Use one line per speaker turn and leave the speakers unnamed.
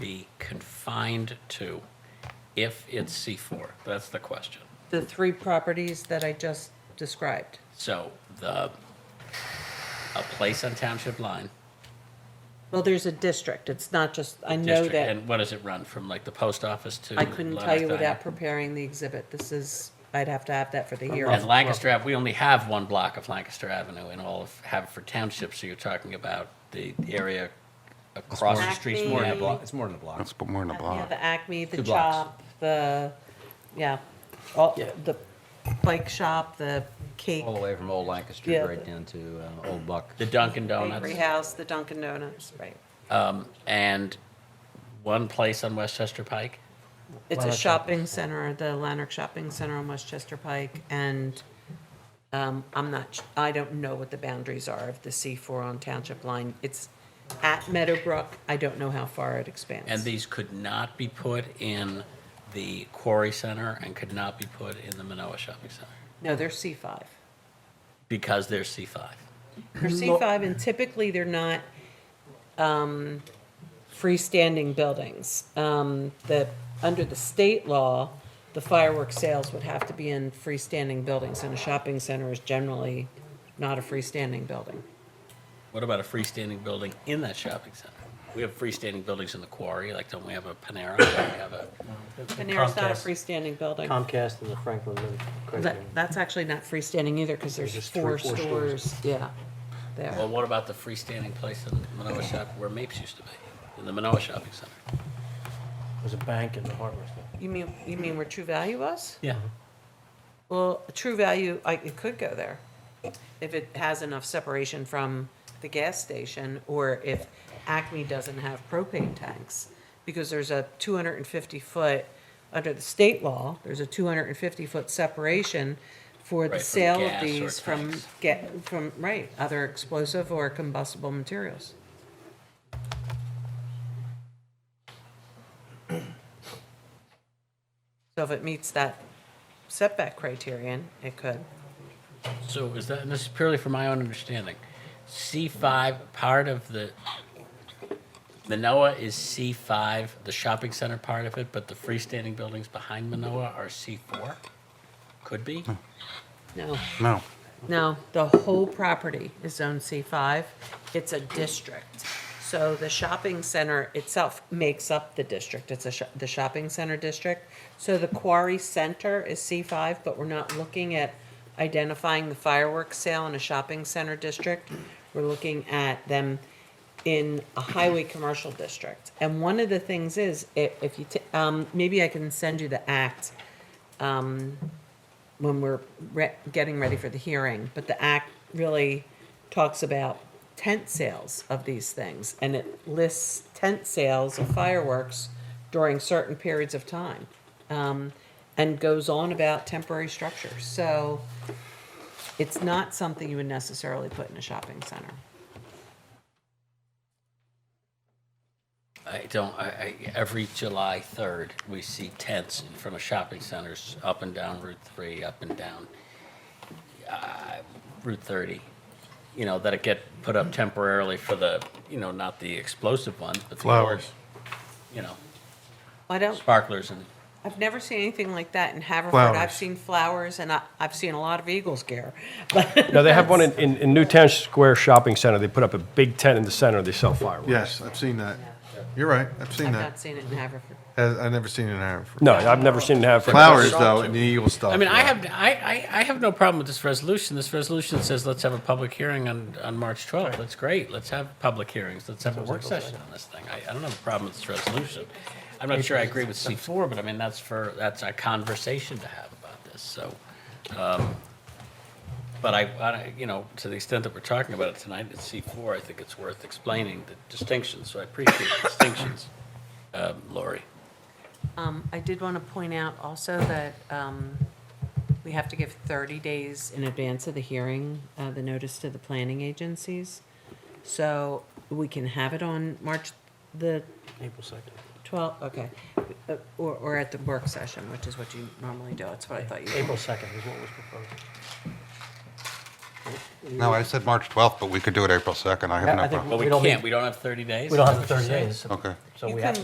be confined to if it's C4? That's the question.
The three properties that I just described.
So the, a place on township line,
Well, there's a district. It's not just, I know
district,
that,
and what does it run from, like the post office to?
I couldn't tell
Lancaster?
you without preparing the exhibit. This is, I'd have to have that for the
And
hearing.
Lancaster Ave, we only have one block of Lancaster Avenue in all of Haverford Township, so you're talking about the area across the street
Acme.
from
More than a
Avenue.
block, it's more than a block.
That's put more in a
Yeah,
block.
the Acme, the
Two blocks.
Chop, the, yeah, all,
Yeah.
the bike shop, the cake,
All the way from Old Lancaster
Yeah.
right down to uh, Old Buck.
The Dunkin' Donuts.
bakery house, the Dunkin' Donuts, right.
Um, and one place on Westchester Pike.
It's a shopping center, the Lanark Shopping Center on Westchester Pike, and um, I'm not, I don't know what the boundaries are of the C4 on Township Line. It's at Meadowbrook, I don't know how far it expands.
And these could not be put in the Quarry Center and could not be put in the Manoa Shopping Center
No, they're C5.
because they're C5.
They're C5, and typically they're not um, freestanding buildings. Um, The, under the state law, the fireworks sales would have to be in freestanding buildings, and a shopping center is generally not a freestanding building.
What about a freestanding building in that shopping center? We have freestanding buildings in the Quarry, like don't we have a Panera? Don't we have a,
Panera's not a
Comcast-
freestanding building.
Comcast and the Franklin. Lin-
That,
Franklin.
that's actually not freestanding either, because there's
There's three,
four
four stores.
stores, yeah,
well,
there.
what about the freestanding place in Manoa Shop where Mapes used to be, in the Manoa Shopping Center?
There's a bank in the hardware Mm-hmm. store.
You mean, you mean where True Value was?
Yeah.
Well, True Value, I, it could go there, if it has enough separation from the gas station, or if Acme doesn't have propane tanks, because there's a two hundred and fifty foot, under the state law, there's a two hundred and fifty foot separation for the
Right, from
sale of
gas or
these from,
tanks.
get, from, right, other explosive or combustible materials. So if it meets that setback criterion, it could.
So is that, and this is purely for my own understanding, C5, part of the, Manoa is C5, the shopping center part of it, but the freestanding buildings behind Manoa are C4? Could be?
No,
No,
no, the whole property is zone C5. It's a district. So the shopping center itself makes up the district. It's a, sho- the shopping center district. So the quarry center is C5, but we're not looking at identifying the fireworks sale in a shopping center district. We're looking at them in a highway commercial district. And one of the things is, i- if you, t- um, maybe I can send you the act when we're re- getting ready for the hearing, but the act really talks about tent sales of these things, and it lists tent sales of fireworks during certain periods of time, um, and goes on about temporary structures. So it's not something you would necessarily put in a shopping center.
I don't, I, I, every July 3rd, we see tents in front of shopping centers, up and down Route 3, up and down uh, Route 30, you know, that get put up temporarily for the, you know, not the explosive ones, but the.
Flowers.
You know,
I don't.
sparklers and
I've never seen anything like that in Haverford. I've
Flowers.
seen flowers, and I, I've seen a lot of Eagles gear. But
No, they have one in, in, in Newtown Square Shopping Center. They put up a big tent in the center. They sell fireworks.
yes, I've seen that. You're right, I've seen
I've not
that.
seen it in Haverford.
Has- I've never seen it in Haverford.
No, I've never seen it have.
Flowers, though, and the Eagle stuff.
I mean, I
yeah.
have, I, I, I have no problem with this resolution. This resolution says, let's have a public hearing on, on March 12th. That's great. Let's have public hearings. Let's have a work session on this thing. I, I don't have a problem with this resolution. I'm not sure I agree with C4, but I mean, that's for, that's a conversation to have about this, so. um, But I, I- you know, to the extent that we're talking about it tonight, it's C4, I think it's worth explaining the distinctions, so I appreciate the distinctions, um, Lori.
Um, I did want to point out also that, um, we have to give thirty days in advance of the hearing, uh, the notice to the planning agencies. So we can have it on March the
April second.
twelfth, okay, Uh, or, or at the work session, which is what you normally do. That's what I thought you.
April second is what was proposed.
No, I said March 12th, but we could do it April 2nd. I have
I
no
think
problem.
But we
We don't
can't,
need-
we don't have 30 days?
We don't
Is
have the
that what you're
thirty
saying?
days.
Okay.
So
You
we have
can-
to